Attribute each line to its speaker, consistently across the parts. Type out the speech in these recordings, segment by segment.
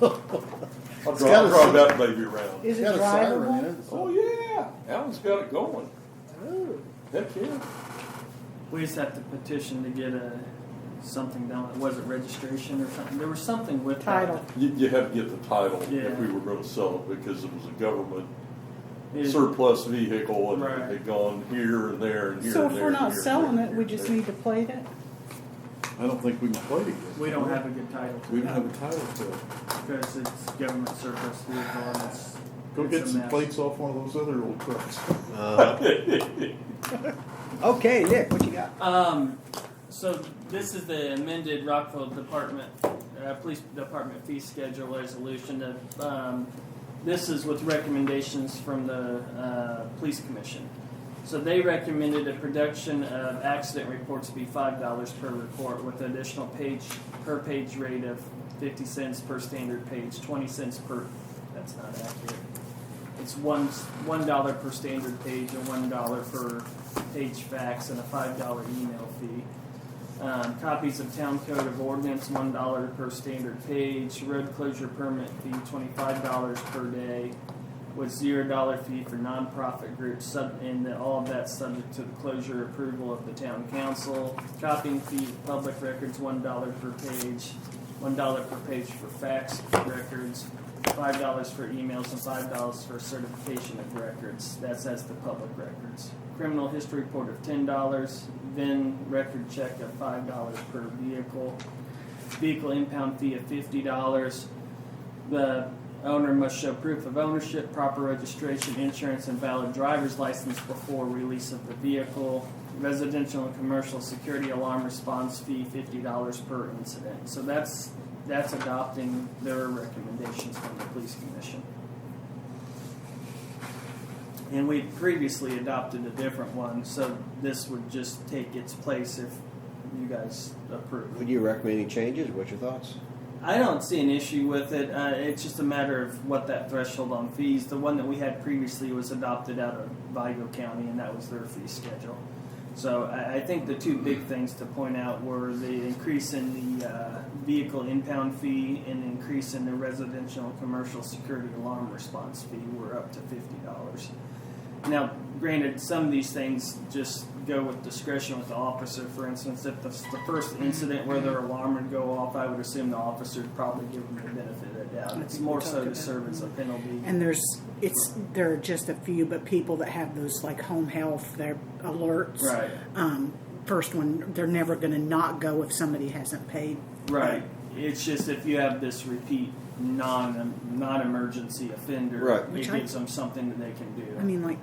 Speaker 1: I'll
Speaker 2: It's
Speaker 1: draw,
Speaker 2: got a
Speaker 1: draw
Speaker 2: si-
Speaker 1: that baby around.
Speaker 3: Is it
Speaker 2: Got a siren in
Speaker 3: drivable?
Speaker 2: it.
Speaker 1: Oh, yeah, that one's got it going.
Speaker 2: Oh.
Speaker 3: Ooh.
Speaker 1: Heck, yeah.
Speaker 4: We just have to petition to get a, something down, was it registration or something? There was something with that.
Speaker 3: Title.
Speaker 1: You, you had to get the title if
Speaker 4: Yeah.
Speaker 1: we were gonna sell it, because it was a government
Speaker 4: It-
Speaker 1: surplus vehicle, and it
Speaker 4: Right.
Speaker 1: had gone here and there and here and there.
Speaker 5: So if we're
Speaker 1: and
Speaker 5: not
Speaker 1: here and
Speaker 5: selling
Speaker 1: there
Speaker 5: it,
Speaker 1: and
Speaker 5: we
Speaker 1: here
Speaker 5: just
Speaker 1: and
Speaker 5: need to plate it?
Speaker 2: I don't think we can play it. yet.
Speaker 4: We don't have a good title to
Speaker 2: We
Speaker 4: it,
Speaker 2: don't have a title to it.
Speaker 4: because it's government surplus vehicle and it's.
Speaker 2: Go
Speaker 4: it's
Speaker 2: get
Speaker 4: a
Speaker 2: some
Speaker 4: mess.
Speaker 2: plates off one of those other old trucks. Uh,
Speaker 6: Oh,
Speaker 3: Okay, Nick, what you got?
Speaker 4: Um, so this is the amended Rockville Department, uh, Police Department fee schedule resolution of, um, this is with recommendations from the, uh, Police Commission. So they recommended a production of accident reports be five dollars per report with additional page, per page rate of fifty cents per standard page, twenty cents per, that's not accurate. It's one, one dollar per standard page and one dollar per page fax and a five dollar email fee. Um, copies of town code of ordinance, one dollar per standard page, road closure permit fee, twenty-five dollars per day, with zero dollar fee for nonprofit groups, sub, and that all of that's subject to the closure approval of the town council. Copying fee, of public records, one dollar per page, one dollar per page for fax records, five dollars for emails and five dollars for certification of records. That's as the public records. Criminal history report of ten dollars, VIN record check of five dollars per vehicle, vehicle impound fee of fifty dollars. The owner must show proof of ownership, proper registration, insurance, and valid driver's license before release of the vehicle. Residential and commercial security alarm response fee fifty dollars per incident. So that's that's adopting their recommendations from the police commission. And we previously adopted a different one, so this would just take its place if you guys approve.
Speaker 6: Would you recommend any changes? What's your thoughts?
Speaker 4: I don't see an issue with it. Uh, it's just a matter of what that threshold on fees. The one that we had previously was adopted out of Vigo County, and that was their fee schedule. So I, I think the two big things to point out were the increase in the uh, vehicle impound fee and the increase in the residential and commercial security alarm response fee were up to fifty dollars. Now, granted, some of these things just go with discretion with the officer. For instance, if the, the first incident where their alarm would go off, I would assume the officer would probably give them the benefit of the doubt.
Speaker 5: I
Speaker 4: It's
Speaker 5: think we
Speaker 4: more
Speaker 5: talked
Speaker 4: so to
Speaker 5: about
Speaker 4: serve as a penalty.
Speaker 7: And there's, it's, there are just a few, but people that have those like home health, their alerts.
Speaker 4: Right.
Speaker 7: Um, first one, they're never gonna not go if somebody hasn't paid.
Speaker 4: Right. It's just if you have this repeat non non emergency offender,
Speaker 6: Right.
Speaker 4: it
Speaker 7: Which I-
Speaker 4: gives them something that they can do.
Speaker 7: I mean, like,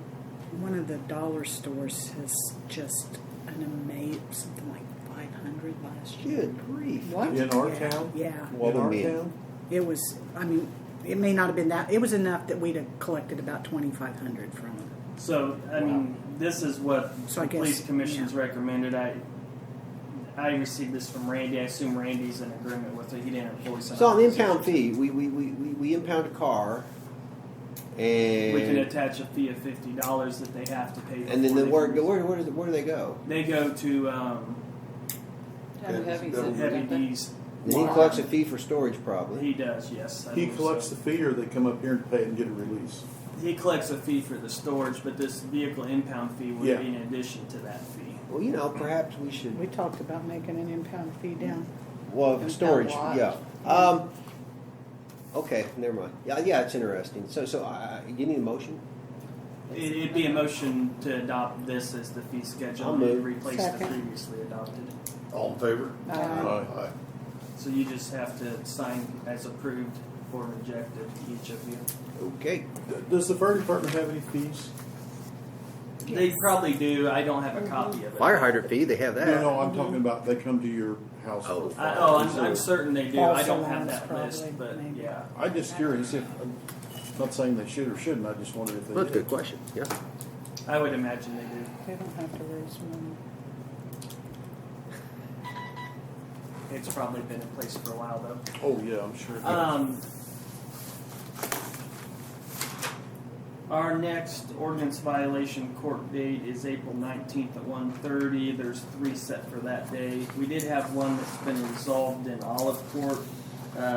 Speaker 7: one of the dollar stores has just an amazing, something like five hundred last year.
Speaker 6: Good grief.
Speaker 7: What?
Speaker 2: In our town?
Speaker 7: Yeah,
Speaker 2: In our
Speaker 6: Walden.
Speaker 2: town?
Speaker 7: it was, I mean, it may not have been that, it was enough that we'd have collected about twenty-five hundred from them.
Speaker 4: So I mean, this is what
Speaker 7: So
Speaker 4: the
Speaker 7: I guess-
Speaker 4: police commission's recommended. I I received this from Randy. I assume Randy's in agreement with it. He didn't have a voice on
Speaker 6: So on the
Speaker 4: it.
Speaker 6: impound fee, we, we, we, we, we impound a car
Speaker 4: We can
Speaker 6: and,
Speaker 4: attach a fee of fifty dollars that they have to pay.
Speaker 6: and then
Speaker 4: before
Speaker 6: the,
Speaker 4: they
Speaker 6: where,
Speaker 4: can-
Speaker 6: where, where, do they, where do they go?
Speaker 4: they go to um, Heavy D's.
Speaker 6: Then he collects a fee for storage probably.
Speaker 4: He does, yes. I
Speaker 2: He
Speaker 4: believe
Speaker 2: collects
Speaker 4: so.
Speaker 2: the fee or they come up here and pay it and get a release.
Speaker 4: He collects a fee for the storage, but this vehicle impound fee would
Speaker 2: Yeah.
Speaker 4: be in addition to that fee.
Speaker 6: Well, you know, perhaps we
Speaker 5: We
Speaker 6: should,
Speaker 5: talked about making an impound fee down.
Speaker 6: well, for storage,
Speaker 5: Impound
Speaker 6: yeah.
Speaker 5: lot.
Speaker 6: Um, okay, never mind. Yeah, yeah, it's interesting. So, so I, I- you need a motion?
Speaker 4: It, it'd be a motion to adopt this as the fee schedule
Speaker 6: I'll
Speaker 4: and
Speaker 6: move.
Speaker 4: replace the
Speaker 5: Second.
Speaker 4: previously adopted.
Speaker 2: All in favor?
Speaker 5: Uh,
Speaker 2: Aye.
Speaker 4: So you just have to sign as approved or rejected, each of you.
Speaker 6: Okay.
Speaker 2: Does the fire department have any fees?
Speaker 4: They probably do. I don't
Speaker 7: Mm-hmm.
Speaker 4: have a copy of it.
Speaker 6: Fire hydrant fee, they have
Speaker 2: No,
Speaker 6: that.
Speaker 2: no, I'm talking about they come to your house for
Speaker 6: Uh, Oh.
Speaker 4: I,
Speaker 2: fire.
Speaker 4: oh, I'm, I'm certain they do. I
Speaker 7: False
Speaker 4: don't have
Speaker 7: alarms
Speaker 4: that list,
Speaker 7: probably,
Speaker 4: but
Speaker 7: maybe.
Speaker 4: yeah.
Speaker 2: I'm just curious if, I'm not saying they should or shouldn't, I just wondered if they
Speaker 6: That's a
Speaker 2: did.
Speaker 6: good question, yeah.
Speaker 4: I would imagine they do.
Speaker 5: They don't have to raise money.
Speaker 4: It's probably been in place for a while though.
Speaker 2: Oh, yeah, I'm sure.
Speaker 4: Um, our next ordinance violation court date is April nineteenth at one thirty. There's three set for that day. We did have one that's been resolved in Olive Court Uh,